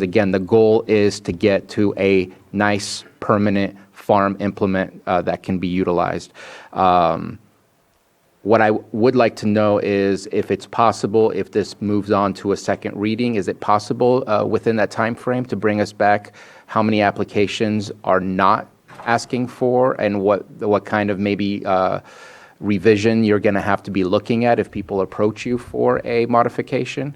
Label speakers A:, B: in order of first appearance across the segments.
A: Again, the goal is to get to a nice, permanent farm implement uh, that can be utilized. Um, What I would like to know is if it's possible, if this moves on to a second reading, is it possible uh, within that time frame to bring us back how many applications are not asking for and what, what kind of maybe uh, revision you're going to have to be looking at if people approach you for a modification?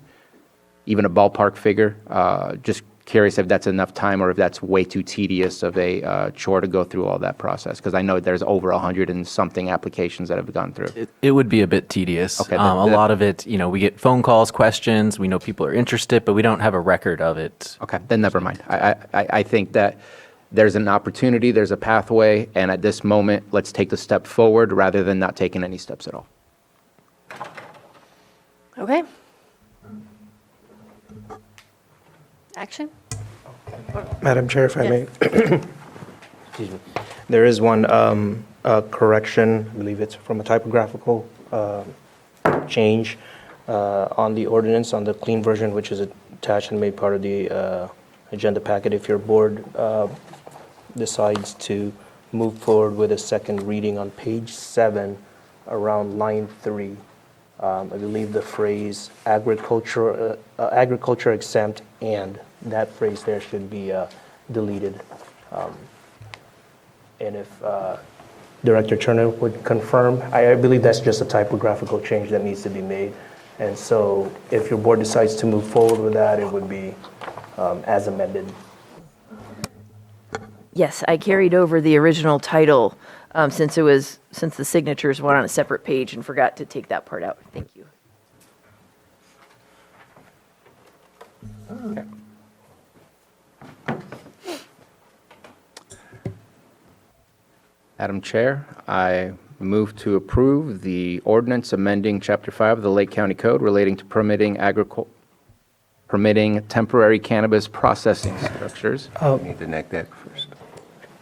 A: even a ballpark figure? Uh, Just curious if that's enough time or if that's way too tedious of a uh, chore to go through all that process? Because I know there's over 100 and something applications that have gone through.
B: It, it would be a bit tedious.
A: Okay,
B: um,
A: that-
B: a
A: that-
B: lot of it, you know, we get phone calls, questions. We know people are interested, but we don't have a record of it.
A: Okay, then never mind. I, I- I, I think that there's an opportunity, there's a pathway, and at this moment, let's take the step forward rather than not taking any steps at all.
C: Okay. Action?
D: Madam Chair, if I may.
C: Yes.
D: Excuse me. There is one um, uh, correction, I believe it's from a typographical um, change uh, on the ordinance, on the clean version, which is attached and made part of the uh, agenda packet. If your board uh, decides to move forward with a second reading on page seven, around line three, um, I believe the phrase agriculture, uh, uh, agriculture exempt and, that phrase there should be uh, deleted. Um, And if uh, Director Turner would confirm, I I believe that's just a typographical change that needs to be made. And so if your board decides to move forward with that, it would be um, as amended.
C: Yes, I carried over the original title um, since it was, since the signatures went on a separate page and forgot to take that part out. Thank you.
A: Madam Chair, I move to approve the ordinance amending Chapter 5 of the Lake County Code relating to permitting agricul, permitting temporary cannabis processing structures.
E: Need to enact that first.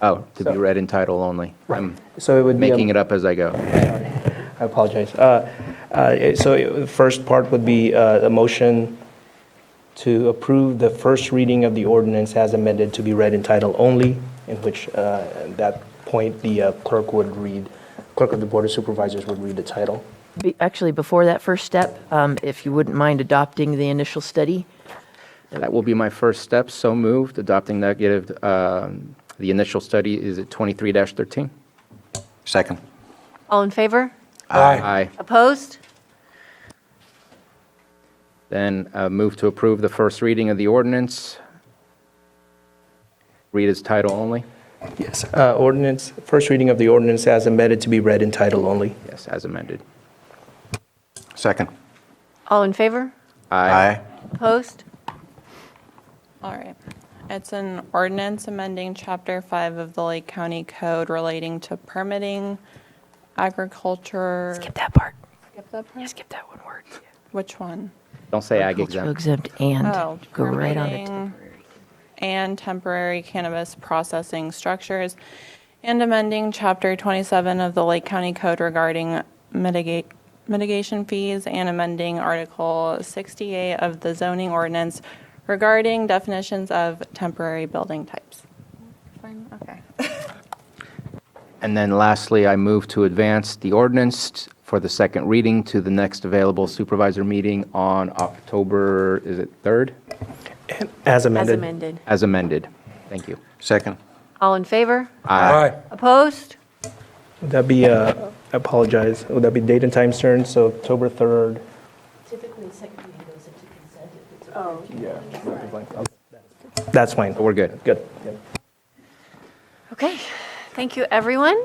A: Oh, to be read in title only. I'm
D: So it would be. a-
A: making it up as I go.
D: I apologize. Uh, uh, So uh, the first part would be uh, a motion to approve the first reading of the ordinance as amended to be read in title only, in which uh, at that point, the uh, clerk would read, clerk of the Board of Supervisors would read the title.
C: Be- Actually, before that first step, um, if you wouldn't mind adopting the initial study,
A: That will be my first step, so moved, adopting negative, um, the initial study is at 23-13.
E: Second.
F: All in favor?
A: Aye.
F: Opposed?
A: Then uh, move to approve the first reading of the ordinance. Read its title only,
D: Yes. uh, Ordinance, first reading of the ordinance as amended to be read in title only.
A: yes, as amended.
E: Second.
F: All in favor? Opposed?
G: All right. It's an ordinance amending Chapter 5 of the Lake County Code relating to permitting agriculture.
C: skip that part.
G: Skip that part?
C: Yeah, skip that one word.
G: Which one?
A: Don't say ag
C: Cultural
A: exempt.
C: exempt
G: Oh,
C: and, go right on it.
G: permitting And temporary cannabis processing structures and amending Chapter 27 of the Lake County Code regarding mitigate, mitigation fees and amending Article 68 of the zoning ordinance regarding definitions of temporary building types. Fine, okay.
A: And then lastly, I move to advance the ordinance for the second reading to the next available supervisor meeting on October, is it 3rd?
D: As
F: As
D: amended.
F: amended.
A: As amended. Thank you.
E: Second.
F: All in favor?
A: Aye.
F: Opposed?
D: Would that be, uh, I apologize, would that be date and time certain, so October 3rd? Typically, second reading goes into consent. Oh. Yeah. That's fine.
A: We're good.
D: Good.
F: Okay. Thank you, everyone.